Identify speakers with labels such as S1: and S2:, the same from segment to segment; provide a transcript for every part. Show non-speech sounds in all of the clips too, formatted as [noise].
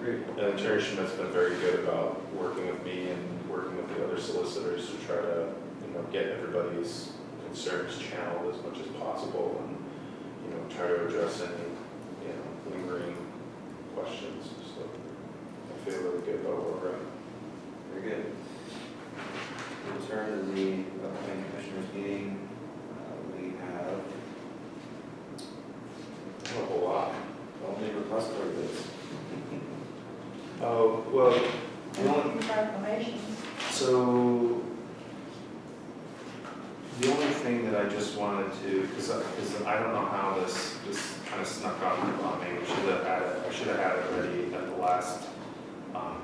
S1: Great.
S2: And Attorney Schmidt's been very good about working with me and working with the other solicitors to try to, you know, get everybody's concerns channeled as much as possible and, you know, try to address any, you know, lingering questions, so I feel really good about where we're at.
S1: Very good. In terms of the upcoming commissioners meeting, uh, we have
S2: Not a whole lot.
S1: only repository bids.
S2: Oh, well,
S3: And all the proclamations.
S2: So, the only thing that I just wanted to, because I, because I don't know how this, this kind of snuck on me, well, maybe we should have had it, I should have had it ready at the last, um,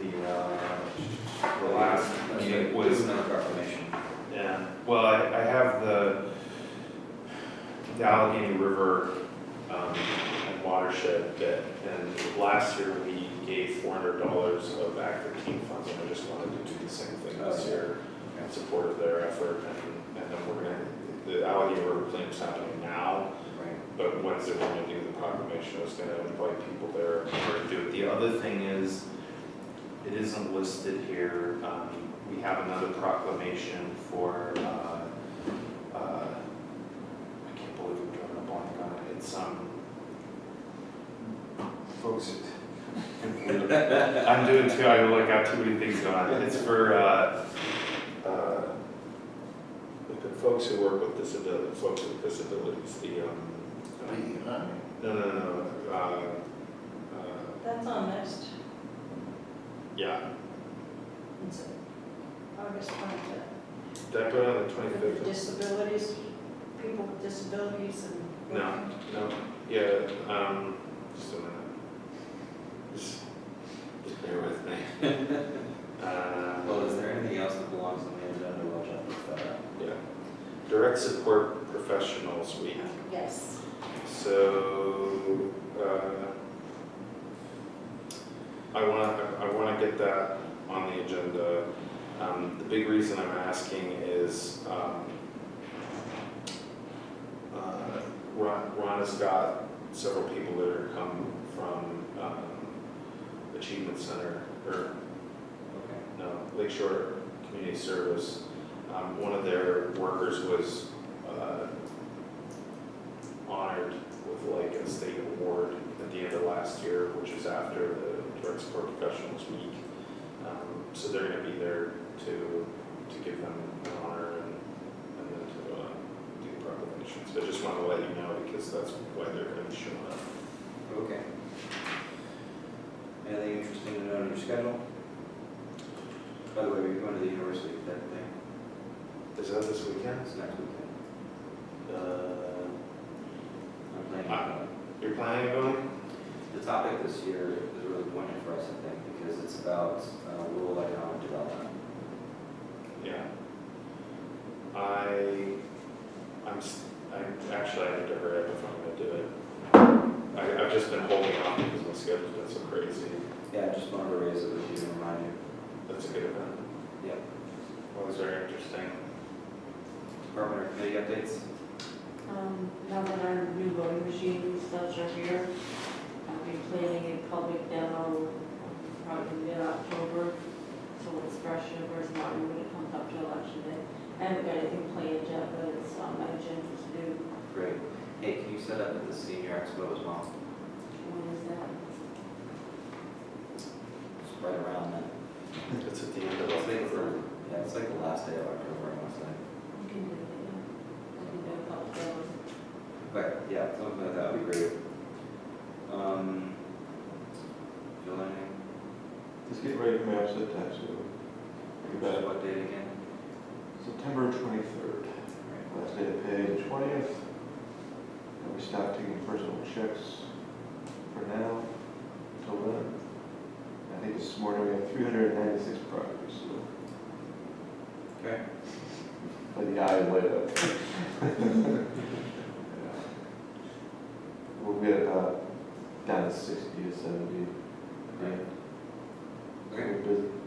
S2: the, uh, the last meeting was,
S1: Not proclamation.
S2: yeah, well, I, I have the, the Allegheny River, um, and watershed bit, and last year we gave four hundred dollars of Act thirteen funds, and I just wanted to do the same thing this
S1: Okay.
S2: year in support of their effort, and, and then we're gonna, the Allegheny River claim's happening now,
S1: Right.
S2: but Wednesday, we're gonna do the proclamation, I was gonna invite people there to do it. The other thing is, it isn't listed here, um, we have another proclamation for, uh, uh, I can't believe I'm drawing a blank on it, it's, um, folks, [laughs] I'm doing too, I like got too many things going on, it's for, uh, uh, the folks who work with disability, folks with disabilities, the, um, um, no, no, no, no, uh, uh,
S3: That's on next,
S2: yeah,
S3: it's August twenty-fifth.
S2: did I put it on the twenty-fifth?
S3: Disabilities, people with disabilities and.
S2: No, no, yeah, um, just a minute. Just, just bear with me. [laughs] Uh,
S1: Well, is there anything else that belongs on the agenda while John looks that up?
S2: Yeah, direct support professionals week,
S3: Yes.
S2: so, uh, I wanna, I wanna get that on the agenda. Um, the big reason I'm asking is, um, uh, Ron, Ron has got several people that are come from, um, Achievement Center, or
S1: Okay.
S2: no, Lake Shore um, Community Service, um, one of their workers was, uh, honored with like a state award at the end of last year, which is after the Direct Support Professionals Week. Um, so they're gonna be there to, to give them an honor and, and then to, uh, do the proclamation. So I just wanted to let you know because that's why they're gonna be showing up.
S1: Okay. Anything interesting to note on your schedule? By the way, we're going to the university for that thing.
S2: Is that this weekend?
S1: That's next weekend.
S2: Uh,
S1: I'm planning on going.
S2: you're planning on going?
S1: The topic this year is really poignant for us, I think, because it's about uh, rural economic development.
S2: Yeah. I, I'm, s- I'm, actually, I need to hurry up if I'm gonna do it. I, I've just been holding off because my schedule's been so crazy.
S1: Yeah, I just wanted to raise it with you and remind you.
S2: That's a good event.
S1: Yep.
S2: Well, it's very interesting.
S1: Department or committee updates?
S4: Um, Now that our new voting machines, those are here, I'll be planning a public demo probably mid-October, so it's fresh in West Martin when it comes up to election day. I haven't got anything planned yet, but it's on my agenda to do.
S1: Great. Hey, can you set up at the senior expo as well?
S4: When is that?
S1: It's right around then.
S2: It's at the end of
S1: It's like
S2: October.
S1: the- Yeah, it's like the last day of October, I want to say.
S4: We can do it, yeah. I can do a public demo.
S1: But yeah, something like that would be great. Um, Jill, anything?
S5: Let's get ready for my upset tax due. You bet.
S1: What date again?
S5: September twenty-third,
S1: Right.
S5: last day of pay, the twentieth. And we stop taking personal checks for now, till then. I think this morning we had three hundred and ninety-six properties, so
S1: Okay.
S5: by the eye light up. We'll get about down to sixty or seventy.
S1: Right. Okay.
S5: We're busy.